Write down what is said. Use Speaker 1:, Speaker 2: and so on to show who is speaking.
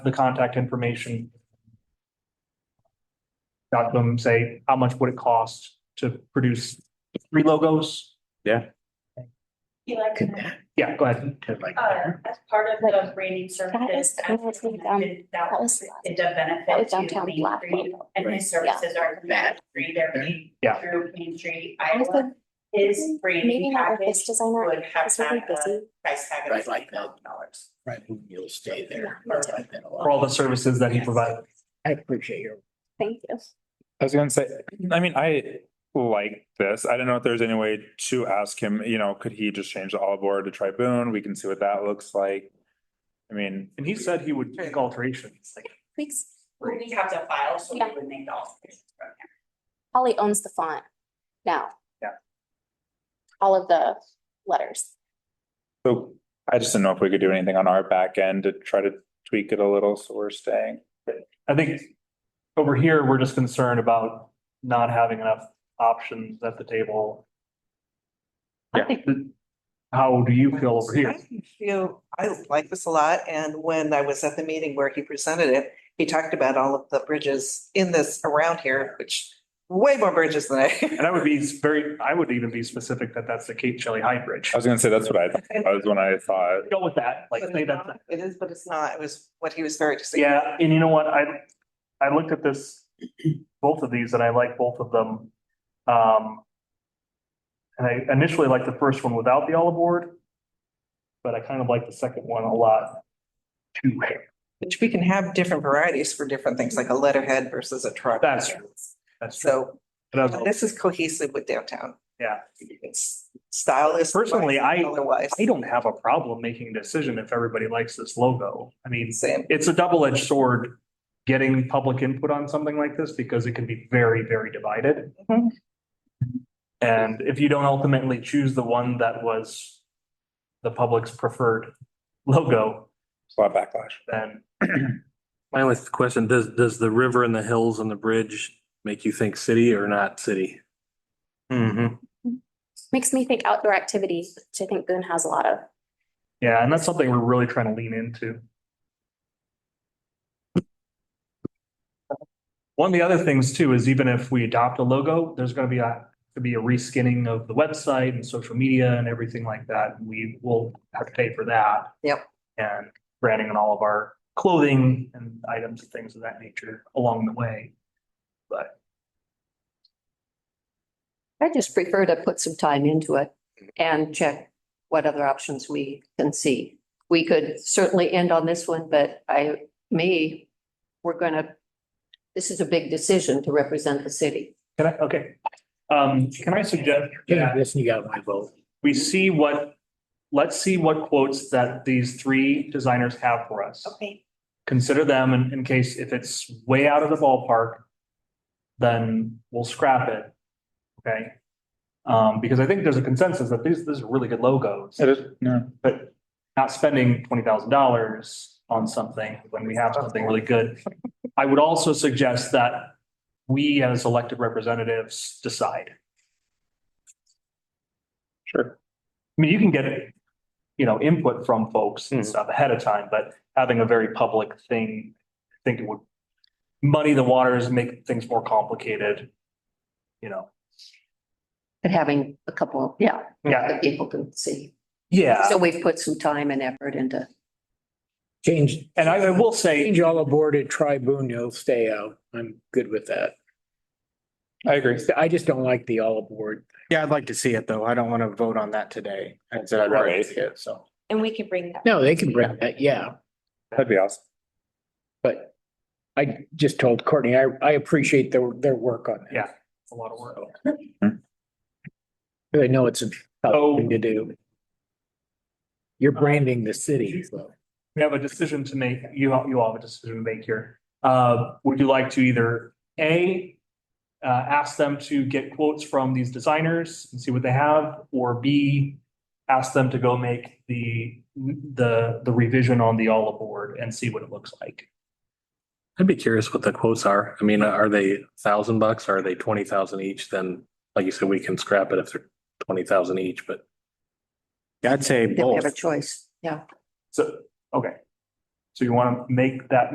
Speaker 1: the contact information. Got to them, say, how much would it cost to produce three logos?
Speaker 2: You like that,
Speaker 1: Yeah, go ahead.
Speaker 2: uh, as part of the branding services.
Speaker 3: That was- that was like, um,
Speaker 2: That
Speaker 3: that
Speaker 2: was
Speaker 3: was-
Speaker 2: the benefit.
Speaker 3: that was
Speaker 2: to
Speaker 3: downtown
Speaker 2: Main
Speaker 3: Black
Speaker 2: Street,
Speaker 3: Lake.
Speaker 2: And his services are from Main Street, they're made
Speaker 1: Yeah.
Speaker 2: through Main Street,
Speaker 3: I was
Speaker 2: Iowa.
Speaker 3: like,
Speaker 2: His
Speaker 3: maybe
Speaker 2: branding
Speaker 3: not with
Speaker 2: package
Speaker 3: this designer,
Speaker 2: would have
Speaker 3: it's really
Speaker 2: had a
Speaker 3: busy.
Speaker 2: price tag of
Speaker 4: Right, like
Speaker 2: twenty
Speaker 4: that.
Speaker 2: thousand dollars.
Speaker 4: Right, who you'll stay there.
Speaker 3: Yeah, me too.
Speaker 1: For all the services that he provided.
Speaker 4: I appreciate your.
Speaker 3: Thank you.
Speaker 5: I was gonna say, I mean, I like this. I don't know if there's any way to ask him, you know, could he just change the olive oil to triboon? We can see what that looks like. I mean,
Speaker 1: And he said he would make alterations.
Speaker 3: Thanks.
Speaker 2: We have to file, so
Speaker 3: Yeah.
Speaker 2: we would make the alterations from there.
Speaker 3: Holly owns the font now.
Speaker 1: Yeah.
Speaker 3: All of the letters.
Speaker 5: so I just didn't know if we could do anything on our back end to try to tweak it a little, so we're staying.
Speaker 1: I think over here, we're just concerned about not having enough options at the table. I
Speaker 5: Yeah.
Speaker 1: think that, how do you feel over here?
Speaker 6: I Feel, I like this a lot, and when I was at the meeting where he presented it, he talked about all of the bridges in this around here, which way more bridges than I.
Speaker 1: And I would be very, I would even be specific that that's the Cape Shelley High Bridge.
Speaker 5: I was gonna say, that's what I, thought. that was when I thought.
Speaker 1: Go with that, like,
Speaker 6: But
Speaker 1: say
Speaker 6: it's
Speaker 1: that's.
Speaker 6: not. It is, but it's not. It was what he was very. distinct.
Speaker 1: Yeah, and you know what, I, I looked at this, both of these, and I like both of them. Um. And I initially liked the first one without the olive board. But I kind of like the second one a lot. Too,
Speaker 6: Which we can have different varieties for different things, like a letterhead versus a truck.
Speaker 1: That's true. that's true.
Speaker 6: So
Speaker 1: And I was-
Speaker 6: this is cohesive with downtown.
Speaker 1: Yeah.
Speaker 6: It's stylist.
Speaker 1: Personally, I-
Speaker 6: Otherwise.
Speaker 1: I don't have a problem making a decision if everybody likes this logo. I mean,
Speaker 6: Same.
Speaker 1: it's a double-edged sword. Getting public input on something like this because it can be very, very divided.
Speaker 6: Mhm.
Speaker 1: And if you don't ultimately choose the one that was the public's preferred logo,
Speaker 5: It's a lot of backlash.
Speaker 1: then
Speaker 7: My only question, does, does the river and the hills and the bridge make you think city or not city?
Speaker 8: Mm-hmm.
Speaker 3: Makes me think outdoor activity, which I think Boone has a lot of.
Speaker 1: yeah, and that's something we're really trying to lean into. One of the other things too is even if we adopt a logo, there's gonna be a, to be a reskinning of the website and social media and everything like that. We will have to pay for that.
Speaker 6: Yep.
Speaker 1: And branding and all of our clothing and items and things of that nature along the way.
Speaker 9: I just prefer to put some time into it and check what other options we can see. We could certainly end on this one, but I, me, we're gonna, this is a big decision to represent the city.
Speaker 1: Can I, okay, um, can I suggest?
Speaker 4: Yeah, this, you got my vote.
Speaker 1: we see what, let's see what quotes that these three designers have for us.
Speaker 2: Okay.
Speaker 1: Consider them in, in case if it's way out of the ballpark, then we'll scrap it. Okay? Um, because I think there's a consensus that these, these are really good logos,
Speaker 5: It is, no.
Speaker 1: but not spending twenty thousand dollars on something when we have something really good. I would also suggest that we as elected representatives decide.
Speaker 5: Sure.
Speaker 1: I mean, you can get, you know, input from folks and
Speaker 7: Mhm.
Speaker 1: stuff ahead of time, but having a very public thing, I think it would muddy the waters, make things more complicated. You know,
Speaker 9: But having a couple, yeah,
Speaker 1: yeah,
Speaker 9: that people can see.
Speaker 1: yeah.
Speaker 9: So we've put some time and effort into.
Speaker 4: Change,
Speaker 1: And I I will say,
Speaker 4: change all aboard at Tribune, you'll stay out. I'm good with that.
Speaker 5: I agree.
Speaker 4: I just don't like the all aboard.
Speaker 8: Yeah, I'd like to see it though. I don't want to vote on that today. I said I'd rather
Speaker 5: Right.
Speaker 8: see it, so.
Speaker 3: And we can bring that.
Speaker 4: No, they can bring that, yeah,
Speaker 5: That'd be awesome.
Speaker 4: but I just told Courtney, I, I appreciate their, their work on that.
Speaker 1: Yeah. it's a lot of work.
Speaker 4: I know it's a
Speaker 1: Oh.
Speaker 4: tough thing to do. You're branding the city, so.
Speaker 1: We have a decision to make. You, all- you all have a decision to make here. Uh, would you like to either A, uh, ask them to get quotes from these designers and see what they have, or B, ask them to go make the, the, the revision on the all aboard and see what it looks like?
Speaker 7: I'd be curious what the quotes are. I mean, are they thousand bucks? Are they twenty thousand each? Then, like you said, we can scrap it if they're twenty thousand each, but
Speaker 8: I'd say
Speaker 9: Then we
Speaker 8: both.
Speaker 9: have a choice, yeah.
Speaker 1: So, okay. So you want to make that